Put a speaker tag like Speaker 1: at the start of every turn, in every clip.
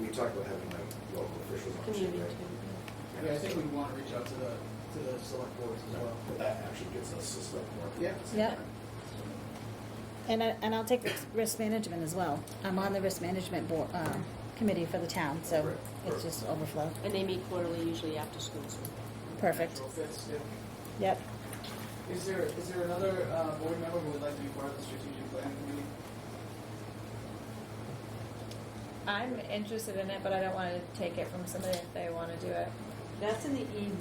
Speaker 1: we talked about having like local officials on too,
Speaker 2: Community
Speaker 1: right?
Speaker 3: Yeah, I think we want to reach out to the, to the select boards as well.
Speaker 1: But that actually gets us to select more.
Speaker 3: Yeah.
Speaker 4: Yep. And I, and I'll take risk- risk management as well. I'm on the risk management board, uh, committee for the town, so
Speaker 1: Right,
Speaker 4: it's
Speaker 1: right.
Speaker 4: just overflow.
Speaker 2: And they meet quarterly, usually after school, so.
Speaker 4: Perfect.
Speaker 3: Natural fits, yeah.
Speaker 4: Yep.
Speaker 3: Is there, is there another uh, board member who would like to be part of the strategic planning committee?
Speaker 5: I'm interested in it, but I don't want to take it from somebody if they want to do it.
Speaker 2: That's in the evenings.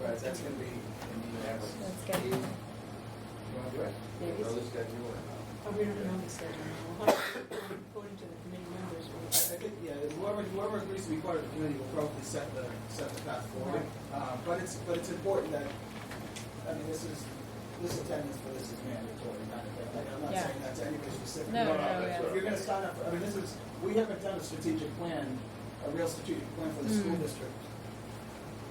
Speaker 3: Right, that's going to be in the next.
Speaker 5: That's good.
Speaker 3: You want to do it?
Speaker 2: Maybe.
Speaker 1: Well, this guy knew it.
Speaker 2: Oh, we don't know the schedule. We'll have to- According to the committee members,
Speaker 3: I I think, yeah, whoever, whoever agrees to be part of the committee will probably set the, set the path forward. Uh, But it's, but it's important that, I mean, this is, this attendance for this is mandatory, not, like, I'm not
Speaker 5: Yeah.
Speaker 3: saying that to anybody specifically.
Speaker 1: no,
Speaker 5: No, no, yeah.
Speaker 1: that's
Speaker 3: If you're gonna sign up, for- I mean, this is, we haven't done a strategic plan, a real strategic plan for the school
Speaker 5: Mm.
Speaker 3: district.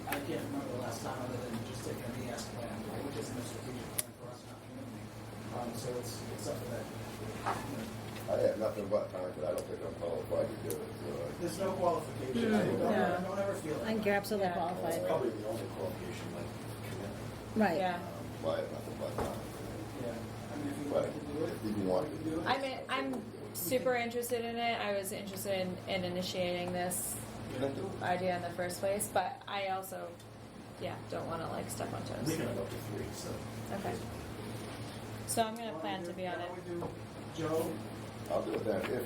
Speaker 3: I can't remember the last time other than just taking an ES plan, right, which isn't a strategic plan for us, not community. Um, so it's, it's something that, you know,
Speaker 6: I have nothing but time, but I don't think I'm qualified to do it, so.
Speaker 3: there's no qualification, I don't,
Speaker 5: Mm, Yeah.
Speaker 3: I don't ever feel
Speaker 4: I
Speaker 3: that.
Speaker 4: think you're absolutely
Speaker 5: Yeah.
Speaker 1: That's
Speaker 4: qualified.
Speaker 1: probably the only qualification, like commitment.
Speaker 4: Right.
Speaker 5: Yeah.
Speaker 6: I have um, nothing but time.
Speaker 3: Yeah, I mean, if you wanted to do it,
Speaker 6: If you want
Speaker 3: you
Speaker 6: to
Speaker 3: do it.
Speaker 5: I mean, I'm super interested in it. I was interested in, in initiating this idea in the first place, but I also, yeah, don't want to like step on
Speaker 1: We
Speaker 5: toes.
Speaker 1: can have up to three, so.
Speaker 5: Okay. So I'm gonna plan to be on it.
Speaker 3: Why don't we do Joe?
Speaker 6: I'll do it then, if.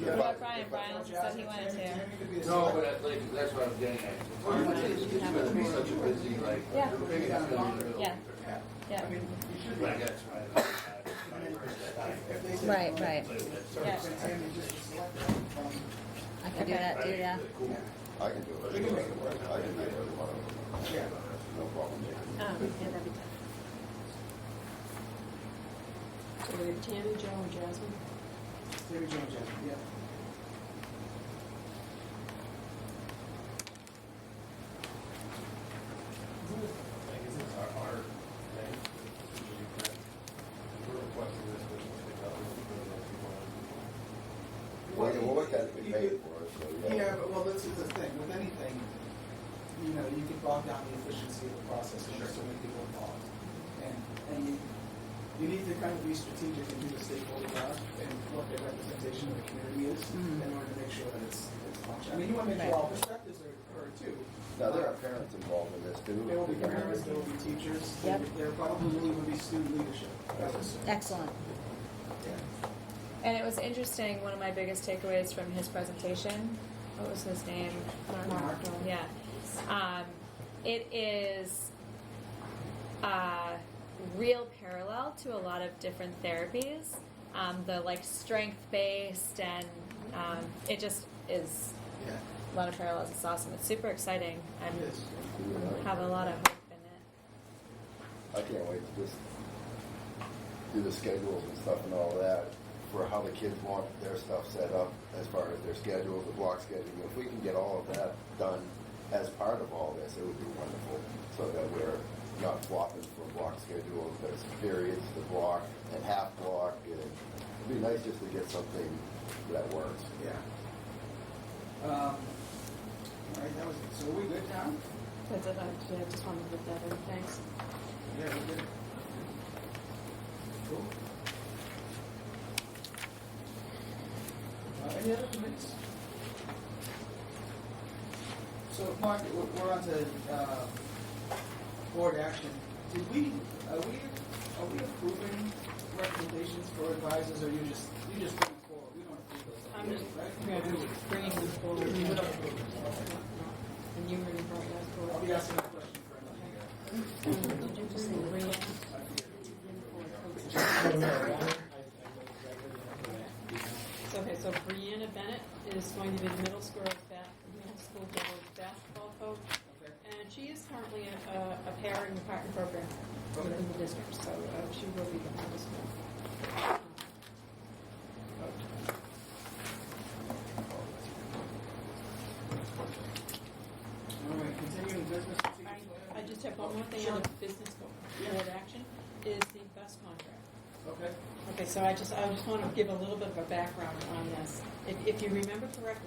Speaker 3: Yeah.
Speaker 5: What
Speaker 6: if I-
Speaker 5: about Brian?
Speaker 3: if I
Speaker 5: Brian
Speaker 3: throw
Speaker 5: said
Speaker 3: Jasmine,
Speaker 5: he wanted
Speaker 3: Tammy-
Speaker 5: to.
Speaker 3: Tammy could be the
Speaker 7: No,
Speaker 3: select-
Speaker 7: but I- like, that's what I'm getting at.
Speaker 3: Why not?
Speaker 7: It's it's gonna be such a busy, like,
Speaker 5: Yeah.
Speaker 7: the biggest gonna be the-
Speaker 5: Yeah.
Speaker 3: Yeah,
Speaker 5: Yeah.
Speaker 3: I mean, you should be.
Speaker 7: But I got to try it
Speaker 3: I mean, if- if
Speaker 7: out.
Speaker 3: they say
Speaker 4: Right,
Speaker 3: no,
Speaker 4: right.
Speaker 7: That's
Speaker 3: so
Speaker 5: Yeah.
Speaker 3: if Tammy just select them, um,
Speaker 4: I can do that too, yeah.
Speaker 7: cool.
Speaker 6: I can do it.
Speaker 3: We can make it work.
Speaker 6: I can do it, whatever.
Speaker 3: Yeah.
Speaker 6: no problem.
Speaker 2: um, yeah, that'd be tough. So we have Tammy, Joe, and Jasmine.
Speaker 3: Tammy, Joe, Jasmine, yeah.
Speaker 8: Like, this is our, our thing, strategic plan. We're requesting this, which is the government, we're like, people are-
Speaker 6: Well, you will look at it, we
Speaker 3: You
Speaker 6: pay
Speaker 3: could-
Speaker 6: for it, so.
Speaker 3: Yeah, but, well, this is the thing, with anything, you know, you can bog down the efficiency of the process, and there's so many people involved. And, and you, you need to kind of be strategic and do the stakeholder job, and what their representation of the community is, in order to make sure that it's, it's functional. I mean, you want to make sure all perspectives are, are too.
Speaker 6: Now, there are parents involved in this too.
Speaker 3: There will be parents, there will be teachers, there
Speaker 4: Yep.
Speaker 3: there probably will even be student leadership. I would assume.
Speaker 4: Excellent.
Speaker 5: And it was interesting. One of my biggest takeaways from his presentation. What was his name?
Speaker 3: Mark.
Speaker 5: Yeah. Um, it is a real parallel to a lot of different therapies. Um, the like strength based and um, it just is
Speaker 3: Yeah,
Speaker 5: a lot of parallels. It's awesome. It's super exciting.
Speaker 3: it
Speaker 5: I'm
Speaker 3: is.
Speaker 5: have a lot of hope in it.
Speaker 6: I can't wait to just do the schedules and stuff and all that for how the kids want their stuff set up as far as their schedules, the block scheduling. If we can get all of that done as part of all this, it would be wonderful so that we're not flopping from block schedules. There's periods to block and half block. And it'd be nice just to get something that works.
Speaker 3: Yeah. Um, all right, that was, so are we good now?
Speaker 2: That's it, I I just wanted to put that in, thanks.
Speaker 3: Yeah, we're good. Cool. Uh, any other comments? So, Mark, we're, we're on to, uh, board action. Did we, are we, are we approving recommendations for advisors, or you just, you just bring them forward? We don't approve those.
Speaker 2: I'm just-
Speaker 3: right?
Speaker 2: Bringing them forward.
Speaker 3: We don't
Speaker 2: And
Speaker 3: approve those. Okay.
Speaker 2: you were going to bring us
Speaker 3: I'll
Speaker 2: forward.
Speaker 3: be asking a question for another.
Speaker 2: Did you just say bring us forward? So, Okay, so Brianna Bennett is going to be the middle school, ba- middle school board basketball coach, and she is currently a, a parent in the partner program
Speaker 3: Okay.
Speaker 2: within the district, so uh, she will be the middle school. Um,
Speaker 3: All right, continuing business.
Speaker 2: I just have one more thing on the business
Speaker 3: Yeah.
Speaker 2: board board action, is the bus contract.
Speaker 3: Okay.
Speaker 2: Okay, so I just, I just want to give a little bit of a background on this. If, if you remember correctly,